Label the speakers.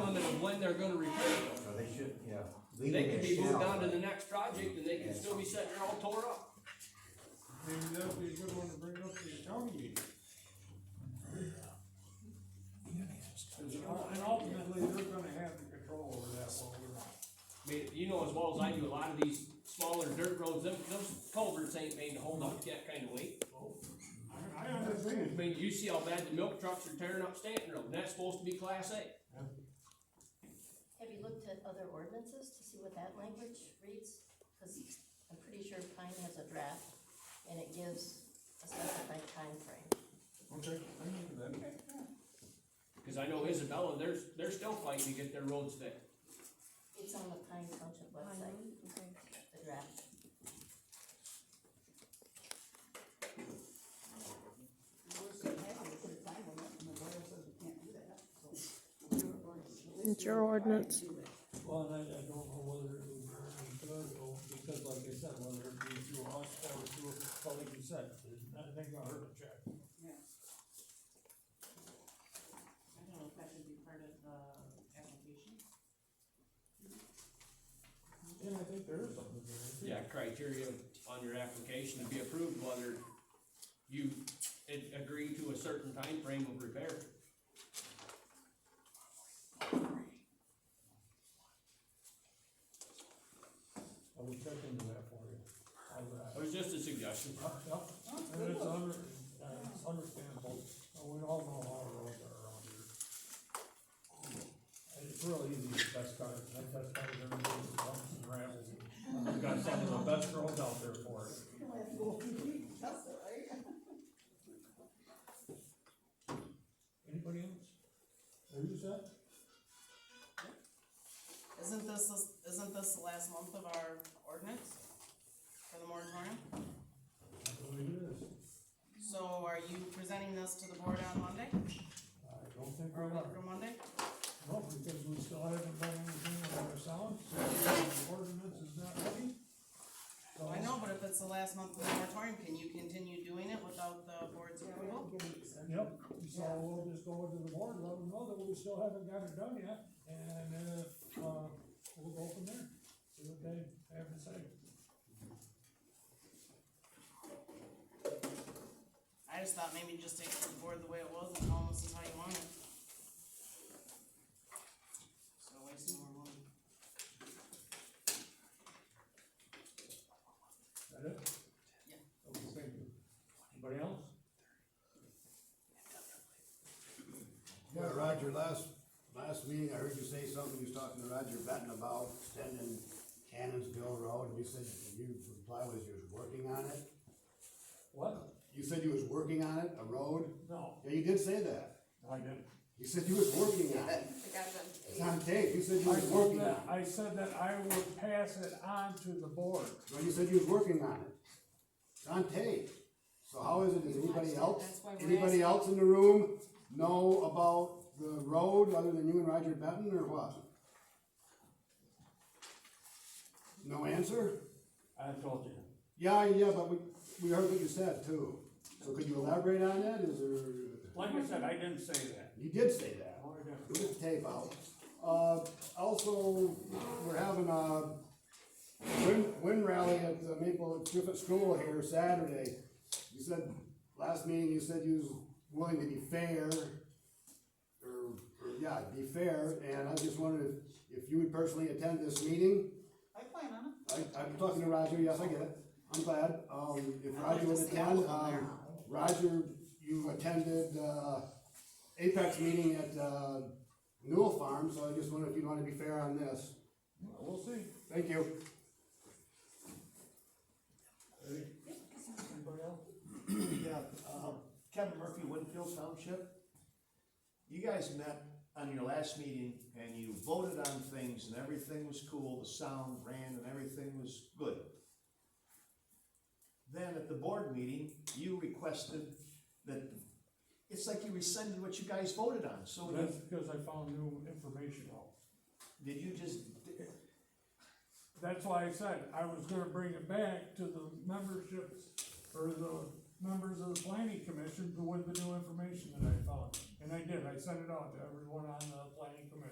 Speaker 1: when they're gonna repair them.
Speaker 2: Or they should, yeah. leave
Speaker 1: They
Speaker 2: them
Speaker 1: can
Speaker 2: as
Speaker 1: be moved
Speaker 2: shall,
Speaker 1: on to
Speaker 2: but-
Speaker 1: the next project and they can still be sitting there all tore up.
Speaker 3: Maybe that would be a good one to bring up to the county meeting. And ultimately, they're gonna have the control over that while we're not.
Speaker 1: I mean, you know as well as I do, a lot of these smaller dirt roads, them, those culverts ain't made to hold up that kind of weight.
Speaker 3: I, I understand.
Speaker 1: I mean, you see how bad the milk trucks are tearing up Stanton Road, and that's supposed to be class A.
Speaker 4: Have you looked at other ordinances to see what that language reads? Cause I'm pretty sure Pine has a draft and it gives a specified timeframe.
Speaker 3: Okay, I know that.
Speaker 1: Cause I know Isabella, they're, they're still fighting to get their roads fixed.
Speaker 4: It's on the Pine Township website,
Speaker 5: Okay.
Speaker 4: the draft.
Speaker 6: It's your ordinance.
Speaker 7: Well, and I, I don't know whether it would be good or, because like I said, whether it be through us or through, well, like you said, I think I heard a check.
Speaker 5: I don't know if that should be part of the application.
Speaker 7: And I think there is something there.
Speaker 1: Yeah, criteria on your application to be approved, whether you a- agree to a certain time frame of repair.
Speaker 7: I would check into that for you. I would,
Speaker 1: It was just a suggestion.
Speaker 7: uh, yep, and it's under, uh, it's understandable, Uh, we all know how our roads are around here. And It's real easy to test cars, I test cars every day, with bumps and rambles, we've got some of the best roads out there for it. Anybody else? Who's that?
Speaker 5: Isn't this, isn't this the last month of our ordinance for the moratorium?
Speaker 7: I believe it is.
Speaker 5: So are you presenting this to the board on Monday,
Speaker 7: I don't think
Speaker 5: or
Speaker 7: we're
Speaker 5: a week
Speaker 7: not,
Speaker 5: from Monday?
Speaker 7: no, because we still haven't done anything with our sound, so the ordinance is not ready. So-
Speaker 5: I know, but if it's the last month of the moratorium, can you continue doing it without the board's approval?
Speaker 7: Yep, so we'll just go into the board, let them know that we still haven't got it done yet, and, uh, uh, we'll go from there, see what they have to say.
Speaker 5: I just thought maybe just take it to the board the way it was and tell them this is how you want it. So wasting more money.
Speaker 7: That it?
Speaker 5: Yeah.
Speaker 7: Okay, thank you. Anybody else?
Speaker 2: Yeah, Roger, last, last meeting, I heard you say something, you was talking to Roger Benton about extending Cannonsville Road, and you said you reply was you was working on it.
Speaker 7: What?
Speaker 2: You said you was working on it, a road?
Speaker 7: No.
Speaker 2: Yeah, you did say that.
Speaker 7: I didn't.
Speaker 2: You said you was working on it. It's on tape, you said you
Speaker 3: I
Speaker 2: was
Speaker 3: said
Speaker 2: working on
Speaker 3: that,
Speaker 2: it.
Speaker 3: I said that I would pass it on to the board.
Speaker 2: Well, you said you was working on it. It's on tape. So how is it, does anybody else, anybody else in the room know about the road other than you and Roger Benton, or what? No answer?
Speaker 7: I told you.
Speaker 2: Yeah, yeah, but we, we heard what you said too. So could you elaborate on that? Is there,
Speaker 7: Like I said, I didn't say that.
Speaker 2: you did say that. Put the tape out. Uh, also, we're having a wind, wind rally at the Maple Griffith School here Saturday. You said, last meeting, you said you was willing to be fair, or, or, yeah, be fair, and I just wondered if, if you would personally attend this meeting?
Speaker 5: I plan on it.
Speaker 2: I, I'm talking to Roger, yes, I get it, I'm glad, um, if Roger would attend, um, Roger, you attended, uh, Apex meeting at, uh, Newell Farm, so I just wonder if you'd wanna be fair on this,
Speaker 7: We'll see.
Speaker 2: thank you.
Speaker 8: Anybody else? Yeah, uh, Kevin Murphy, Winfield Township. You guys met on your last meeting and you voted on things and everything was cool, the sound ran and everything was good. Then at the board meeting, you requested that, it's like you rescinded what you guys voted on, so you-
Speaker 7: That's because I found new information out.
Speaker 8: did you just,
Speaker 7: That's why I said I was gonna bring it back to the memberships, or the members of the planning commission with the new information that I found. And I did, I sent it out to everyone on the planning commission.